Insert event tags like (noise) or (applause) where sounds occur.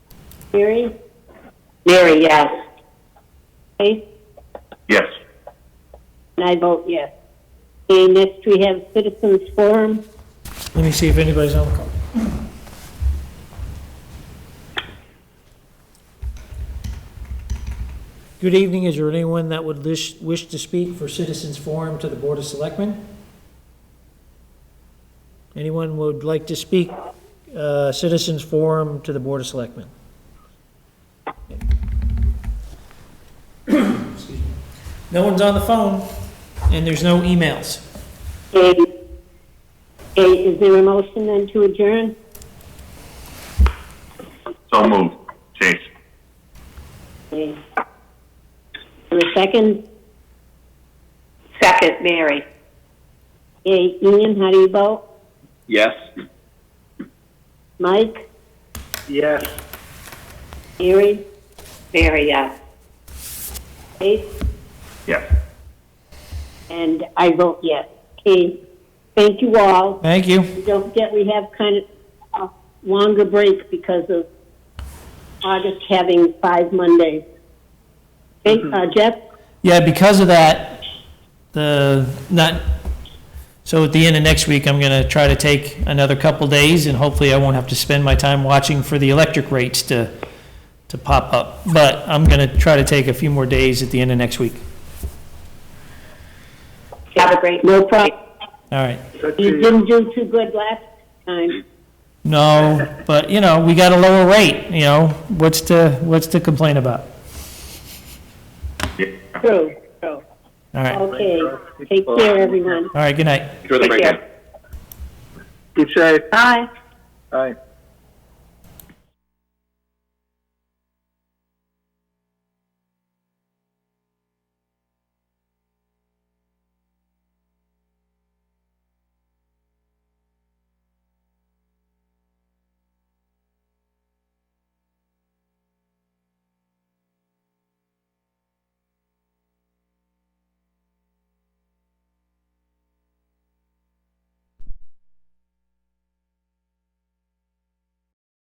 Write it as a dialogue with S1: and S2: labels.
S1: Mary?
S2: Mary, yes.
S1: Faith?
S3: Yes.
S1: And I vote yes. Okay, next we have citizens forum.
S4: Let me see if anybody's on the call. Good evening. Is there anyone that would lish- wish to speak for Citizens Forum to the Board of Selectmen? Anyone would like to speak uh, Citizens Forum to the Board of (coughs) Selectmen? Excuse me. No one's on the phone, and there's no emails.
S1: Okay, okay, is there a motion then to adjourn?
S3: So moved. Chase.
S1: Okay. And a second?
S2: Second, Mary.
S1: Okay, Ian, how do you vote?
S3: Yes.
S1: Mike?
S3: Yes.
S1: Mary?
S2: Mary, yes.
S1: Faith?
S3: Yes.
S1: And I vote yes. Okay, thank you all.
S4: Thank you.
S1: Don't forget, we have kind of a longer break because of August having five Mondays. Hey,
S2: Mm-hmm.
S1: uh, Jeff,
S4: Yeah, because of that, the, not, so at the end of next week, I'm going to try to take another couple days, and hopefully I won't have to spend my time watching for the electric rates to, to pop up. But I'm going to try to take a few more days at the end of next week.
S2: Have a great.
S1: no problem.
S4: All right.
S1: You didn't do too good last time.
S4: No, but, you know, we got a lower rate, you know, what's to, what's to complain about?
S3: Yeah.
S1: True, true.
S4: All right. All
S1: Okay, take care, everyone.
S4: right, good night.
S3: Enjoy the
S2: Take care.
S3: break.
S5: Keep safe.
S1: Bye.
S5: Bye.